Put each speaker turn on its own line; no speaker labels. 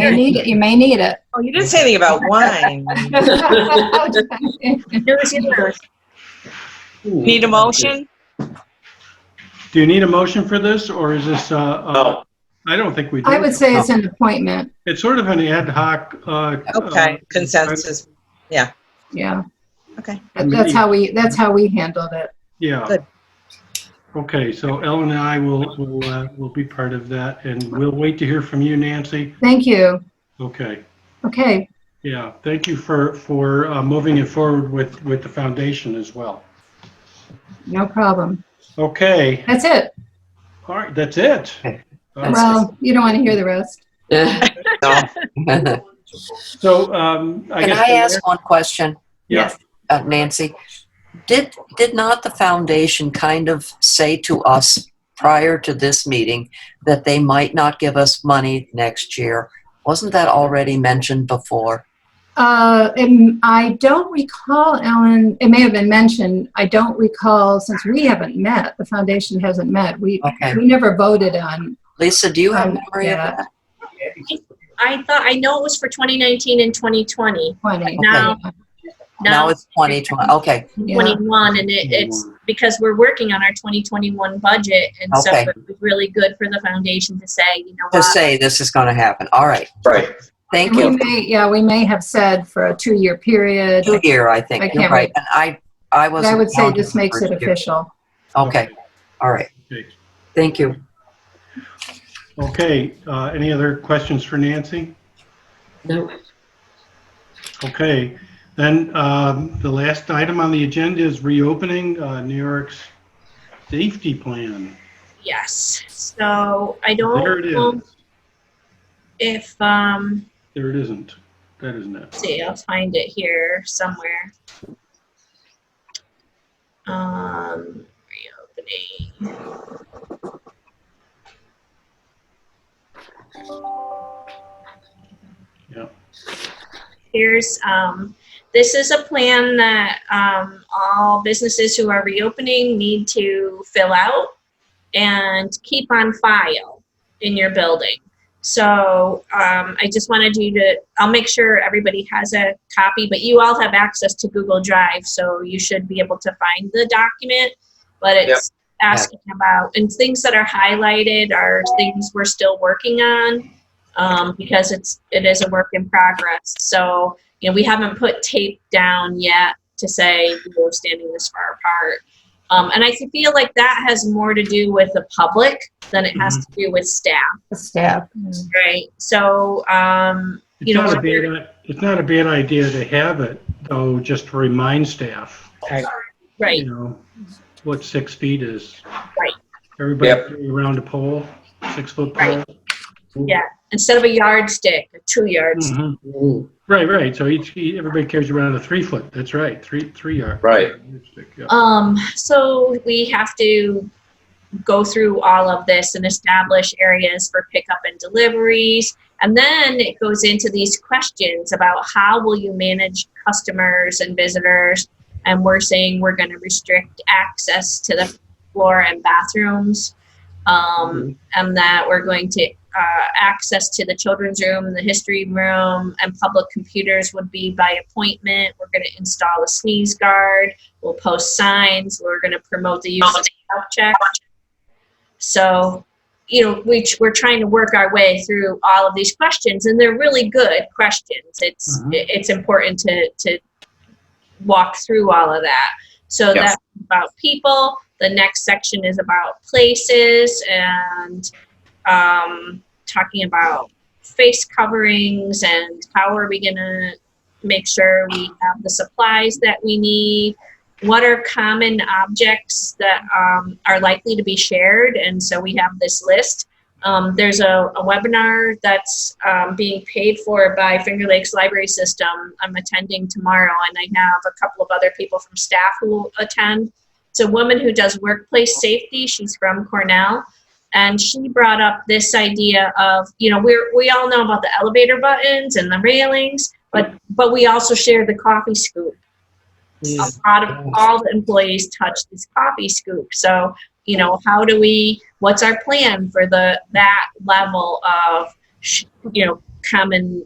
You need it. You may need it.
Oh, you didn't say anything about wine. Here's yours. Need a motion?
Do you need a motion for this, or is this, uh, uh,
No.
I don't think we do.
I would say it's an appointment.
It's sort of an ad hoc. uh,
Okay,
uh,
consensus.
Yeah.
Okay.
That- That's how we, that's how we handled it.
Yeah.
Good.
Okay, so Ellen and I will, will, uh, will be part of that, and we'll wait to hear from you, Nancy.
Thank you.
Okay,
Okay.
yeah, thank you for, for uh, moving it forward with, with the foundation as well.
No problem.
Okay,
That's it.
all right, that's it. All right.
Well, you don't want to hear the rest.
Can
So, um, I guess.
I ask one question,
Yeah.
uh, Nancy? Did, did not the foundation kind of say to us prior to this meeting that they might not give us money next year? Wasn't that already mentioned before?
Uh, and I don't recall, Ellen, it may have been mentioned, I don't recall, since we haven't met, the foundation hasn't met, we,
Okay.
we never voted on.
Lisa, do you have
Um,
memory of
yeah.
that?
I thought, I know it was for 2019 and 2020,
Twenty.
Now-
Now
now
it's 2020, okay,
Yeah.
21, and it, it's because we're working on our 2021 budget, and so
Okay.
it was really good for the foundation to say, you know
to
what?
say this is going to happen, all right,
Right.
thank
We
you.
may, yeah, we may have said for a two-year period,
Two year, I
I
think,
can't
you're right, and I, I
but
was.
I would say this makes it official.
Okay, all right,
Okay.
thank you.
Okay, uh, any other questions for Nancy?
No.
Okay, then um, the last item on the agenda is reopening uh, New York's safety plan.
Yes, so I
There it
don't know
is.
if, um,
There it isn't. That isn't it.
let's see, I'll find it here somewhere. Um, reopening.
Yeah.
Here's, um, this is a plan that, um, all businesses who are reopening need to fill out and keep on file in your building. So um, I just wanted you to, I'll make sure everybody has a copy, but you all have access to Google Drive, so you should be able to find the document. But it's asking about, and things that are highlighted are things we're still working on um, because it's, it is a work in progress. So, you know, we haven't put tape down yet to say we're standing this far apart. Um, and I feel like that has more to do with the public than it has
Mm-hmm.
to do with staff.
The staff.
Right. So, um,
It's
you know,
not a
we're-
bad, it's not a bad idea to have it, though, just to remind staff, you
right.
know, what six feet is.
Right.
Yep.
Everybody around a pole, six-foot pole.
Right. Yeah. Instead of a yardstick, a two yards.
Mhm. Right, right. So each, everybody carries around a three-foot. That's right, three, three yard.
Right.
Yeah.
Um, so we have to go through all of this and establish areas for pickup and deliveries. And then it goes into these questions about how will you manage customers and visitors? And we're saying we're going to restrict access to the floor and bathrooms. Um, and that we're going to uh, access to the children's room, the history room, and public computers would be by appointment. We're going to install a sneeze guard. We'll post signs. We're going to promote the use of health check. So, you know, we, we're trying to work our way through all of these questions, and they're really good questions. It's
Mhm.
it's important to to walk through all of that. So
Yes.
that's about people. The next section is about places and um, talking about face coverings and how are we going to make sure we have the supplies that we need what are common objects that um, are likely to be shared and so we have this list um, there's a, a webinar that's um, being paid for by finger lakes library system i'm attending tomorrow and i have a couple of other people from staff who will attend it's a woman who does workplace safety she's from cornell and she brought up this idea of you know we're, we all know about the elevator buttons and the railings but but we also share the coffee scoop a lot of all the employees touch this coffee scoop. So, you know, how do we, what's our plan for the, that level of, sh- you know, common